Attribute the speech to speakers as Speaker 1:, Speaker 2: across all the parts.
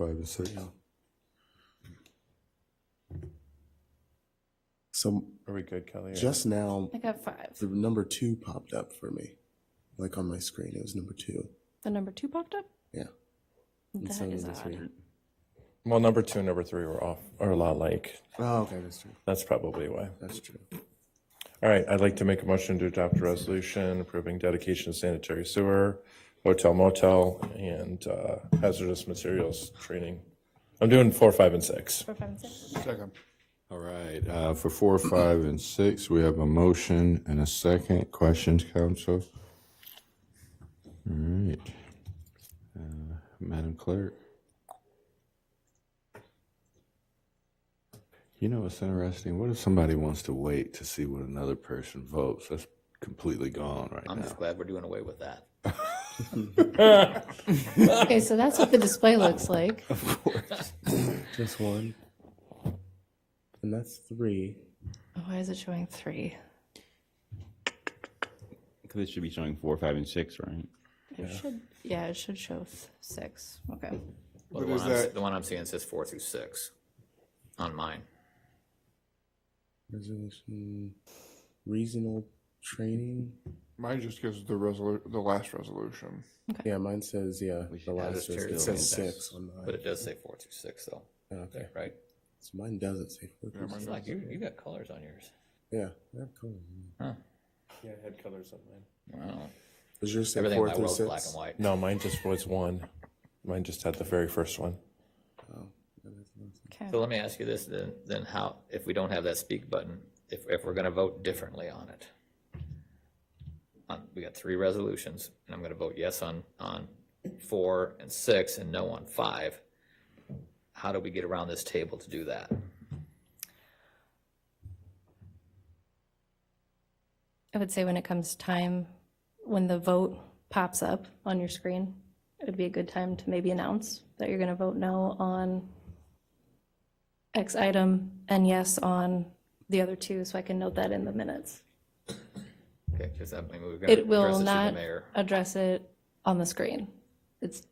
Speaker 1: Five and six.
Speaker 2: Yeah. So
Speaker 1: Are we good, Kelly? or-
Speaker 2: just now,
Speaker 3: I got five.
Speaker 2: the number two popped up for me, like on my screen. It was number two.
Speaker 3: The number two popped up?
Speaker 2: Yeah. And so
Speaker 3: That
Speaker 2: did
Speaker 3: is
Speaker 2: this
Speaker 3: odd.
Speaker 2: one.
Speaker 1: Well, number two and number three were off, are a lot like.
Speaker 2: Oh, okay, that's true.
Speaker 1: That's probably why.
Speaker 2: That's true.
Speaker 1: All right, I'd like to make a motion to adopt a resolution approving dedication of sanitary sewer, hotel motel, and uh, hazardous materials training. I'm doing four, five, and six.
Speaker 3: Four, five, and six.
Speaker 4: All right, uh, for four, five, and six, we have a motion and a second. Questions, council? All right. Uh, Madam Clerk? You know what's interesting? What if somebody wants to wait to see what another person votes? That's completely gone right
Speaker 5: I'm
Speaker 4: now.
Speaker 5: just glad we're doing away with that.
Speaker 3: Okay, so that's what the display looks like.
Speaker 2: Just one. And that's three.
Speaker 3: Why is it showing three?
Speaker 6: Because it should be showing four, five, and six, right?
Speaker 3: It should, yeah, it should show th- six. Okay.
Speaker 5: Well, the, one I'm, the one I'm seeing says four through six on mine.
Speaker 2: Resolution, reasonable training.
Speaker 7: Mine just gives the resolu- the last resolution.
Speaker 2: Yeah, mine says, yeah, the last,
Speaker 5: just
Speaker 2: it
Speaker 5: tear
Speaker 2: says
Speaker 5: it down.
Speaker 2: six on
Speaker 5: But
Speaker 2: mine.
Speaker 5: it does say four through six, though,
Speaker 2: Okay,
Speaker 5: right?
Speaker 2: so mine doesn't say four.
Speaker 7: Yeah, mine
Speaker 5: It's like you, you got colors on yours.
Speaker 2: Yeah, yeah, cool.
Speaker 5: Huh.
Speaker 1: Yeah, I had colors on mine.
Speaker 5: Wow.
Speaker 2: Does yours say
Speaker 5: Everything in
Speaker 2: four
Speaker 5: my
Speaker 2: through
Speaker 5: world's black
Speaker 2: six?
Speaker 5: and white.
Speaker 1: No, mine just was one. Mine just had the very first one.
Speaker 3: Okay.
Speaker 5: So let me ask you this then, then how, if we don't have that speak button, if, if we're gonna vote differently on it? On, we got three resolutions, and I'm gonna vote yes on, on four and six and no on five. How do we get around this table to do that?
Speaker 3: I would say when it comes time, when the vote pops up on your screen, it'd be a good time to maybe announce that you're going to vote no on X item and yes on the other two, so I can note that in the minutes.
Speaker 5: Okay, because that, I mean, we're gonna
Speaker 3: It
Speaker 5: address
Speaker 3: will
Speaker 5: it to the
Speaker 3: not
Speaker 5: mayor.
Speaker 3: address it on the screen. It's,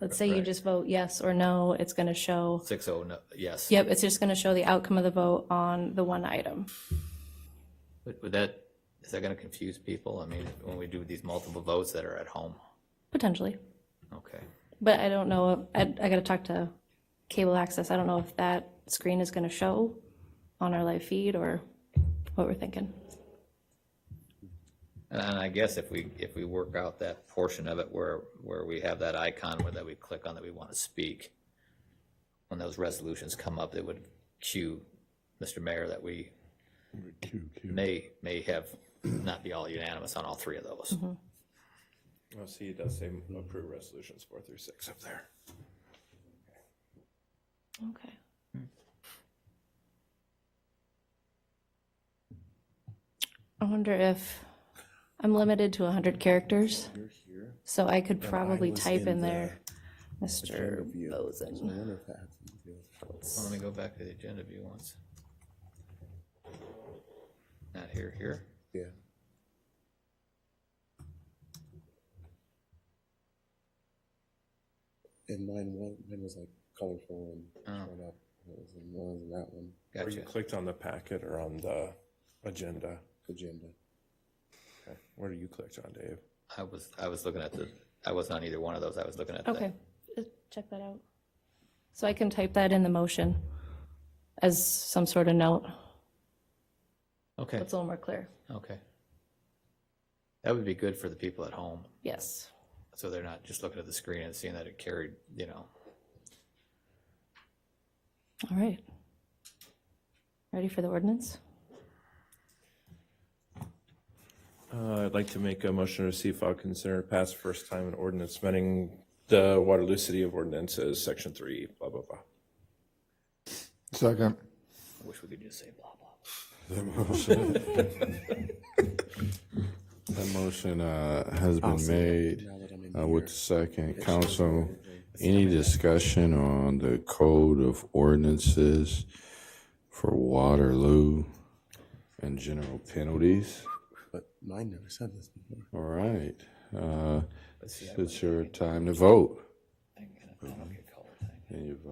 Speaker 3: let's say you just vote yes or no, it's going to show,
Speaker 5: Six oh, no, yes.
Speaker 3: yep, it's just going to show the outcome of the vote on the one item.
Speaker 5: Would would that, is that gonna confuse people? I mean, when we do these multiple votes that are at home?
Speaker 3: Potentially.
Speaker 5: Okay.
Speaker 3: But I don't know, I, I gotta talk to cable access, I don't know if that screen is gonna show on our live feed or what we're thinking.
Speaker 5: And I guess if we, if we work out that portion of it where, where we have that icon where that we click on that we want to speak, when those resolutions come up, it would cue, Mr. Mayor, that we may, may have not be all unanimous on all three of those.
Speaker 3: Mm-hmm.
Speaker 1: Oh, see, it does say approve resolutions four through six up there.
Speaker 3: Okay. I wonder if, I'm limited to hundred characters, so I could probably
Speaker 2: was
Speaker 3: type
Speaker 2: in
Speaker 3: in
Speaker 2: the
Speaker 3: there, Mr.
Speaker 2: Review. I
Speaker 3: Bozen.
Speaker 2: wonder if that has something to do with it.
Speaker 5: Well, Let me go back to the agenda view once. Not here, here.
Speaker 2: Yeah. And mine, one, mine was like colorful and showed up. It was in one and that one
Speaker 1: Or you
Speaker 5: Gotcha.
Speaker 1: clicked on the packet or on the agenda.
Speaker 2: agenda.
Speaker 1: Okay. Where do you click on, Dave?
Speaker 5: I was, I was looking at the, I wasn't on either one of those. I was looking at the.
Speaker 3: Okay, uh, check that out. So I can type that in the motion as some sort of note,
Speaker 5: Okay,
Speaker 3: it's a little more clear,
Speaker 5: okay. That would be good for the people at home.
Speaker 3: yes.
Speaker 5: so they're not just looking at the screen and seeing that it carried, you know.
Speaker 3: All right. Ready for the ordinance?
Speaker 1: Uh, I'd like to make a motion to receive, file, consider, pass first time an ordinance amending the Waterloo City of Ordinances, Section 3, blah, blah, blah.
Speaker 7: Second.
Speaker 5: I wish we could just say blah blah.
Speaker 4: That motion uh, has been made
Speaker 2: Now that I'm in
Speaker 4: uh,
Speaker 2: here.
Speaker 4: with the second. Council, any discussion on the code of ordinances for Waterloo and general penalties?
Speaker 2: But mine never said this before.
Speaker 4: All right. uh, It's your time to vote.
Speaker 5: I don't get color thing.
Speaker 4: And you vote.